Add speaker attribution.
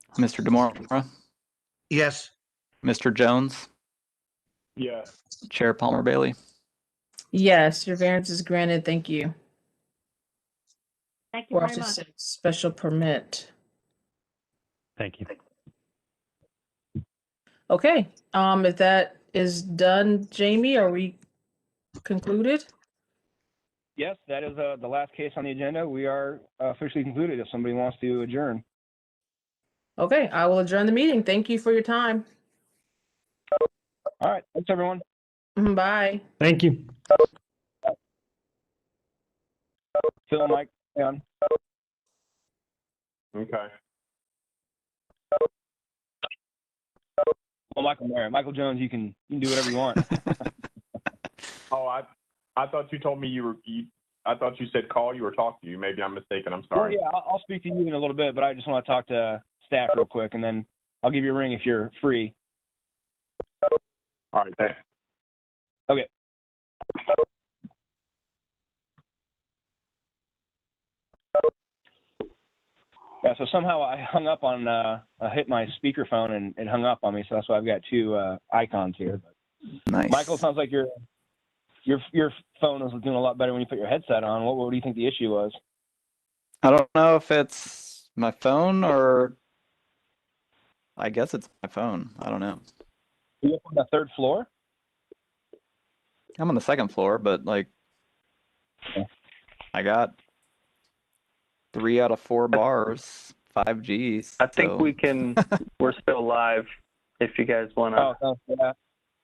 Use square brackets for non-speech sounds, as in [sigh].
Speaker 1: Mr. Demora,
Speaker 2: Yes.
Speaker 1: Mr. Jones,
Speaker 3: Yes.
Speaker 1: Chair Palmer Bailey.
Speaker 4: Yes, your variance is granted. Thank you.
Speaker 5: Thank you
Speaker 4: Four
Speaker 5: very
Speaker 4: to
Speaker 5: much.
Speaker 4: six, special permit.
Speaker 6: Thank you.
Speaker 4: Okay, um, if that is done, Jamie, are we concluded?
Speaker 3: Yes, that is uh, the last case on the agenda. We are uh, officially concluded if somebody wants to adjourn.
Speaker 4: Okay, I will adjourn the meeting. Thank you for your time. [clears throat]
Speaker 3: All right, thanks, everyone.
Speaker 4: Mhm, Bye.
Speaker 6: Thank you.
Speaker 3: Phil, Mike, Leon.
Speaker 7: Okay.
Speaker 3: Well, Michael Mayer, Michael Jones, you can, you can do whatever you [laughs] want.
Speaker 7: Oh, I, I thought you told me you were, you, I thought you said call you or talk to you. Maybe I'm mistaken. I'm
Speaker 3: Well,
Speaker 7: sorry.
Speaker 3: yeah, I'll, I'll speak to you in a little bit, but I just want to talk to staff real quick, and then I'll give you a ring if you're free.
Speaker 7: All right, thanks.
Speaker 3: Yeah, so somehow I [laughs] hung up on, uh, I hit my speakerphone and it hung up on me, so that's why I've got two uh, icons here.
Speaker 1: Nice.
Speaker 3: Michael, sounds like your your your phone was doing a lot better when you put your headset on. What, what do you think the issue was?
Speaker 1: I don't know if it's my phone or I guess it's my phone. I don't know.
Speaker 3: Are you up on the third floor?
Speaker 1: I'm on the second floor, but like
Speaker 3: Okay.
Speaker 1: I got three out of four bars, five Gs.
Speaker 8: I think
Speaker 1: so-
Speaker 8: we can. we're still live. If you guys want to,
Speaker 3: Oh, sounds- yeah.